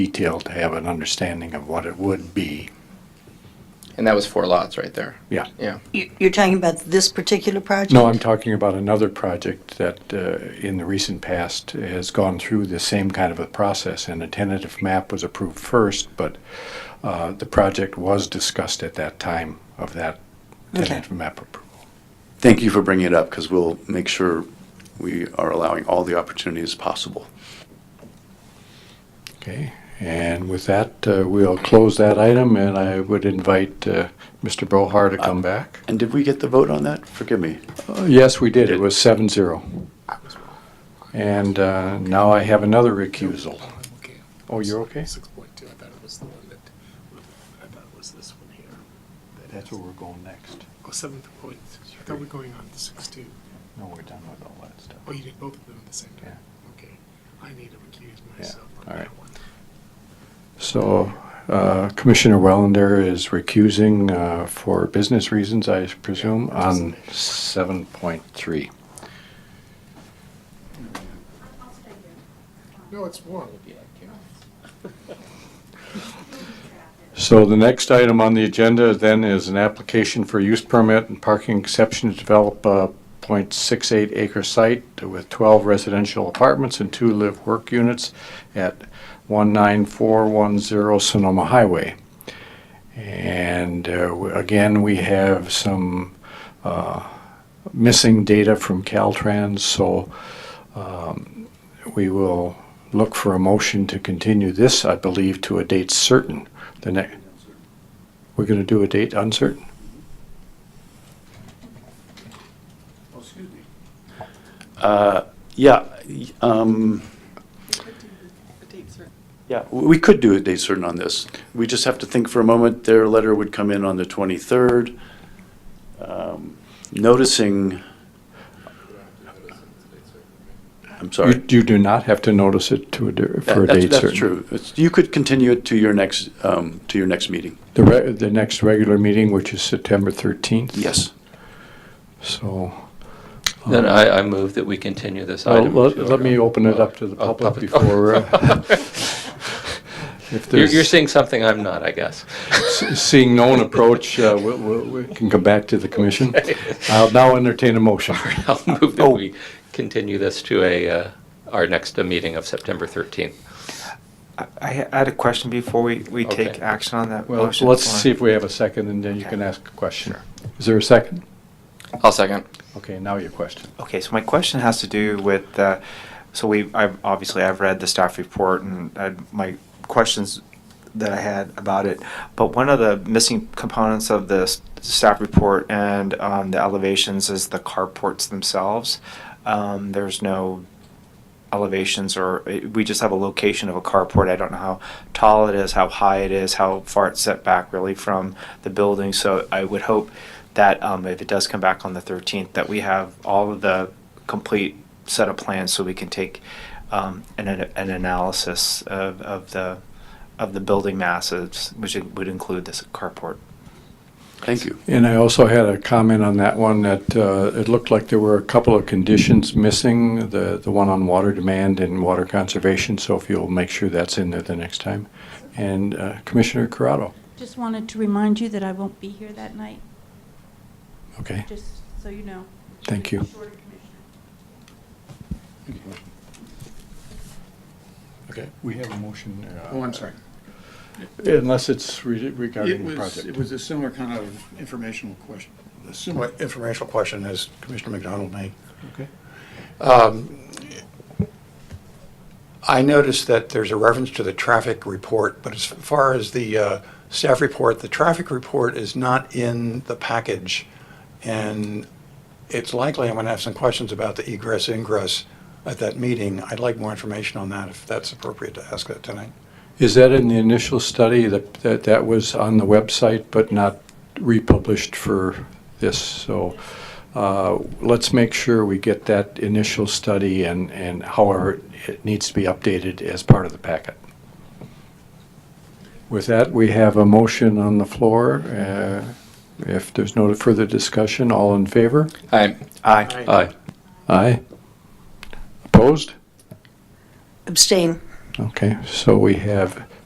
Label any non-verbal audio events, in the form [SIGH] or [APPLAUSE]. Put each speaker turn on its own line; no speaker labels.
detail to have an understanding of what it would be.
And that was four lots right there.
Yeah.
Yeah.
You- You're talking about this particular project?
No, I'm talking about another project that uh, in the recent past has gone through the same kind of a process, and a tentative map was approved first, but uh, the project was discussed at that time of that
Okay.
tentative map approval.
Thank you for bringing it up because we'll make sure we are allowing all the opportunities possible.
Okay, and with that, uh, we'll close that item, and I would invite uh, Mr. Bohar to come back.
And did we get the vote on that? Forgive me.
Uh, Yes, we did. It was seven zero. And uh, now I have another recusal.
Okay.
Oh, you're okay?
Six point two, I thought it was the one that, I thought it was this one here. That has-
we're going next.
Oh, seventh point, I thought we were going on to six two.
No, we're done with all that stuff.
Oh, you did both of them at the same time? Okay, I need to recuse myself on
all
that
right.
one.
So uh, Commissioner Wellender is recusing uh, for business reasons, I presume, on seven point three.
No, it's one. [LAUGHS]
So the next item on the agenda then is an application for use permit and parking exception to develop a .68 acre site with 12 residential apartments and two live-work units at 19410 Sonoma Highway. And uh, w- again, we have some uh, missing data from Caltrans, so um, we will look for a motion to continue this, I believe, to a date certain. The next, we're gonna do a date uncertain?
Yeah, y- um, yeah, w- we could do a date certain on this. We just have to think for a moment. Their letter would come in on the 23rd. Um, Noticing, I'm
You,
sorry.
you do not have to notice it to a, dir- for a
That- that's-
date certain.
That's true. It's- You could continue it to your next, um, to your next meeting.
The re, the next regular meeting, which is September thirteenth.
Yes.
So,
Then I, I move that we continue this
uh,
item.
Um, let,
to-
let me open it up to the
Oh,
public
oh.
before. uh, If
[LAUGHS] You're, you're
there's,
seeing something I'm not, I guess.
s- seeing no one approach, uh, we, we, we can come back to the commission. I'll now entertain a motion.
[LAUGHS] I'll move
oh.
that we continue this to a, uh, our next uh, meeting of September 13th.
I- I had a question before we, we
Okay.
take action on that
Well,
motion.
let's
Lauren.
see if we have a second and then you can ask a question. Is there a second?
I'll second.
Okay, now your question.
Okay, so my question has to do with, uh, so we, I've, obviously I've read the staff report and I, my questions that I had about it, but one of the missing components of the s- staff report and, um, the elevations is the carports themselves. Um, there's no elevations or, eh, we just have a location of a carport. I don't know how tall it is, how high it is, how far it's set back really from the building. So I would hope that um, if it does come back on the 13th, that we have all of the complete set of plans so we can take um, an, an analysis of, of the of the building masses, which would include this carport.
Thank you.
And I also had a comment on that one that uh, it looked like there were a couple of conditions missing, the, the one on water demand and water conservation. So if you'll make sure that's in there the next time. And uh, Commissioner Corrado,
Just wanted to remind you that I won't be here that night,
okay,
just so you know.
thank you.
Shorter commission.
Okay, we have a motion. uh,
Oh, I'm sorry.
Unless it's re-
It
regarding the
was, it
project.
was a similar kind of informational question, a similar informational question as Commissioner McDonald made. Um,
Okay.
I noticed that there's a reference to the traffic report, but as far as the uh, staff report, the traffic report is not in the package. And it's likely I'm going to have some questions about the egress ingress at that meeting. I'd like more information on that if that's appropriate to ask that tonight.
Is that in the initial study that, that, that was on the website but not republished for this? So uh, let's make sure we get that initial study and, and however it needs to be updated as part of the packet. With that, we have a motion on the floor. Uh, If there's no further discussion, all in favor?
Hi.
Aye. Opposed?
Abstain.
Okay, so we have